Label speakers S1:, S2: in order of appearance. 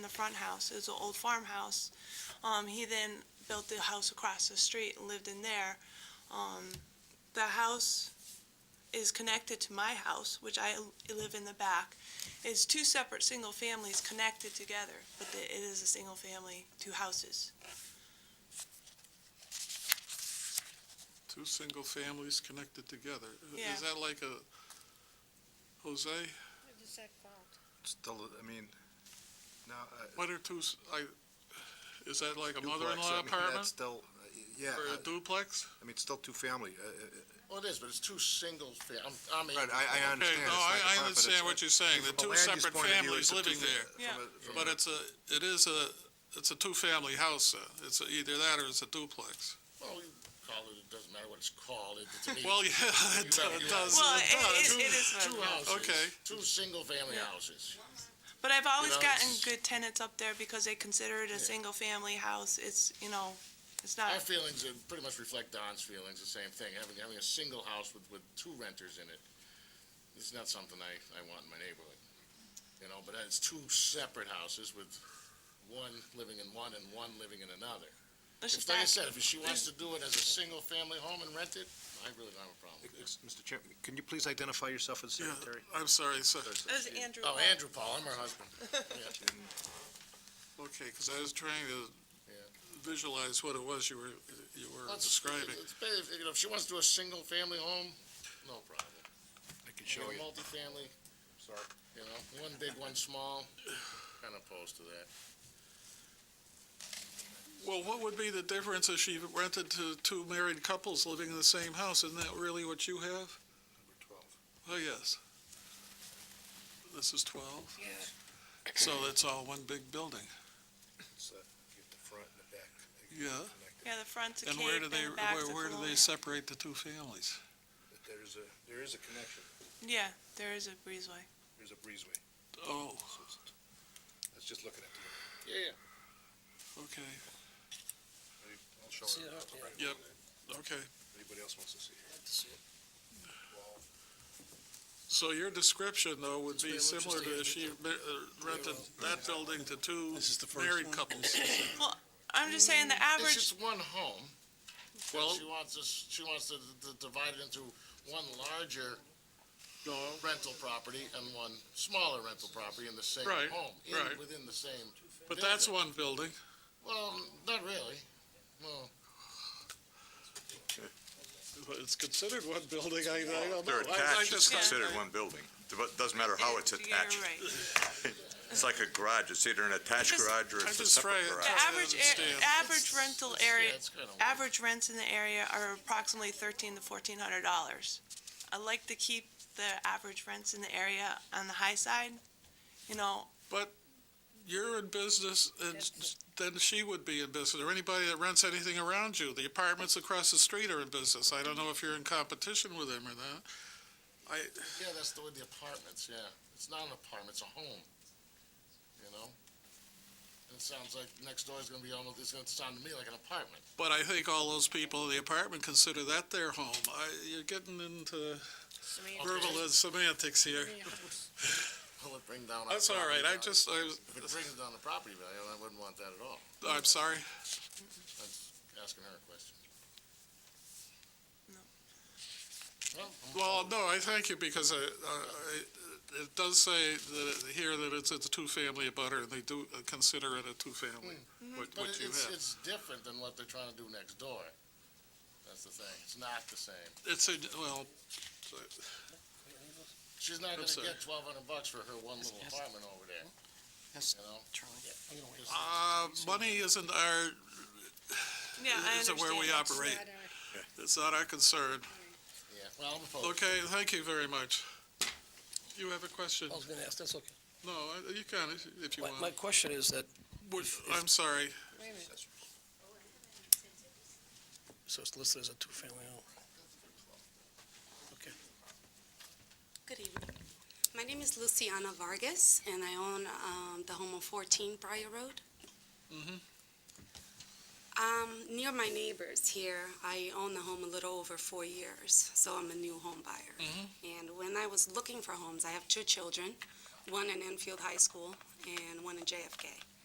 S1: front house. It was an old farmhouse. Um, he then built the house across the street and lived in there. Um, the house is connected to my house, which I live in the back. It's two separate single families connected together, but the- it is a single family, two houses.
S2: Two single families connected together.
S1: Yeah.
S2: Is that like a, Jose,
S3: Still, I mean, no, uh,
S2: what are two, s- I, is that like a
S3: duplex, I
S2: mother-in-law
S3: mean, That's
S2: apartment
S3: still, uh, yeah,
S2: or
S3: I
S2: a duplex?
S3: I mean, it's still two-family, uh, uh,
S4: Well, it is, but it's two singles, fa- I'm, I'm.
S3: right, I, I understand.
S2: Okay,
S3: it's
S2: no,
S3: not
S2: I, I
S3: the front, but
S2: understand
S3: it's-
S2: what you're saying. The
S3: from a
S2: two
S3: land use
S2: separate
S3: point of view,
S2: families
S3: it's a
S2: living
S3: two-fa-
S2: there.
S3: from a- from
S2: But
S3: a-
S2: it's a, it is a, it's a two-family house, uh, it's either that or it's a duplex.
S4: Well, you call it, it doesn't matter what it's called, it, to me,
S2: Well, yeah, it
S4: You
S2: does,
S4: got-
S2: it
S4: you got-
S2: does.
S1: Well, it is,
S2: Two-
S1: it is.
S4: two houses.
S2: Okay.
S4: Two single-family
S1: Yeah.
S4: houses.
S1: But I've always
S4: know,
S1: gotten
S4: it's-
S1: good tenants up there because they consider it a single family house. It's, you know, it's not,
S4: Our feelings uh, pretty much reflect Don's feelings, the same thing, having, having a single house with, with two renters in it. It's not something I, I want in my neighborhood, you know, but it's two separate houses with one living in one and one living in another.
S1: it's
S4: If,
S1: just
S4: like I
S1: not,
S4: said, if she wants to do it as a single-family home and rent it, I really don't have a problem.
S3: Ex- Mr. Chairman, can you please identify yourself for the
S2: Yeah,
S3: secretary?
S2: I'm sorry, sir.
S1: it was Andrew.
S4: Oh,
S1: Paul.
S4: Andrew Paul, I'm her husband.
S2: Okay, because I was trying
S4: Yeah.
S2: to visualize what it was you were, you were
S4: Let's-
S2: describing.
S4: let's pay- if- You know, if she wants to do a single-family home, no problem.
S3: I can
S4: You know, Multifamily. Sorry. You know, one big, one small, kind of opposed to that.
S2: Well, what would be the difference if she rented to two married couples living in the same house? Isn't that really what you have? Oh, yes. This is twelve? Yeah. So that's all one big building,
S3: It's, uh, get the front and the back connected.
S2: yeah.
S1: Yeah, the front's a
S2: And
S1: cave
S2: where do
S1: and
S2: they,
S1: the back's a
S2: where, where do they
S1: colonial.
S2: separate the two families?
S3: But There's a, there is a connection,
S1: Yeah, there is a breezeway.
S3: there's a breezeway,
S2: Oh,
S3: so it's, that's just looking at the,
S4: Yeah, yeah.
S2: okay,
S3: I'll show
S5: See
S3: her.
S5: it up, yeah.
S2: Yep. okay.
S3: Anybody else wants to see it?
S2: So your description, though, would be
S4: It's very
S2: similar to if she ma- uh, rented that building to two
S5: This is the first
S2: married
S5: one.
S2: couples.
S1: I'm just saying the
S4: It's
S1: average,
S4: just one home.
S2: Well-
S4: Well, she wants to, s- she wants to d- d- divide it into one larger rental property and one smaller rental property in the same
S2: Right,
S4: home. in-
S2: right.
S4: Within the same,
S2: But that's one building.
S4: well, not really. Well,
S2: But It's considered one building, I, I don't know.
S6: They're
S2: I- I
S6: attached, it's
S2: just-
S1: Yeah.
S6: considered one building. It doesn't matter how it's
S1: you're right.
S6: attached. It's like a garage, it's either an attached
S1: Just-
S6: garage or
S2: I
S6: it's a
S2: just
S6: separate
S2: try it.
S6: garage.
S1: The
S2: I
S1: average,
S2: understand.
S1: a- average rental area,
S4: yeah, it's kind of.
S1: average rents in the area are approximately thirteen to fourteen hundred dollars. I like to keep the average rents in the area on the high side, you know,
S2: You're in business, and s- then she would be in business, or anybody that rents anything around you. The apartments across the street are in business. I don't know if you're in competition with them or not. I,
S4: Yeah, that's the way the apartments, yeah. It's not an apartment, it's a home, you know? It sounds like next door is gonna be almost, it's gonna sound to me like an apartment.
S2: but I think all those people in the apartment consider that their home. I, you're getting into verbal and semantics here.
S4: Will it bring down? our
S2: That's all right.
S4: property
S2: I
S4: value?
S2: just, I was,
S4: If it brings down the property value, I wouldn't want that at all.
S2: I'm sorry.
S4: That's asking her a question.
S1: No.
S4: Well, I'm-
S2: Well, no, I thank you because I, I, it does say that, here that it's, it's a two-family abutter and they do consider it a two-family, what,
S4: Hmm. Mm-hmm. But
S2: what you
S4: it's,
S2: have.
S4: it's different than what they're trying to do next door. That's the thing. It's not the same.
S2: It's a, well,
S4: She's not gonna
S2: sorry.
S4: get twelve hundred bucks for her one little
S5: yes.
S4: apartment over there,
S5: Yes,
S4: you know?
S5: Charlie. I'm gonna wait.
S2: uh, money isn't our,
S1: yeah, I
S2: isn't where we
S1: understand.
S2: operate. It's not our concern.
S4: Yeah, well, I'm opposed.
S2: Okay, thank you very much. You have a question?
S5: I was gonna ask, that's okay.
S2: No, I- you can if- if you
S5: My, Oh. my
S2: want.
S5: question is that,
S2: Would- I'm sorry.
S5: so it's listed as a two-family home.
S7: Good evening. My name is Luciana Vargas, and I own um, the home on 14 Briar Road.
S2: Mhm.
S7: Um, Near my neighbors here, I own the home a little over four years, so I'm a new home buyer.
S2: Mm-hmm.
S7: And when I was looking for homes, I have two children, one in Enfield High School and one in JFK.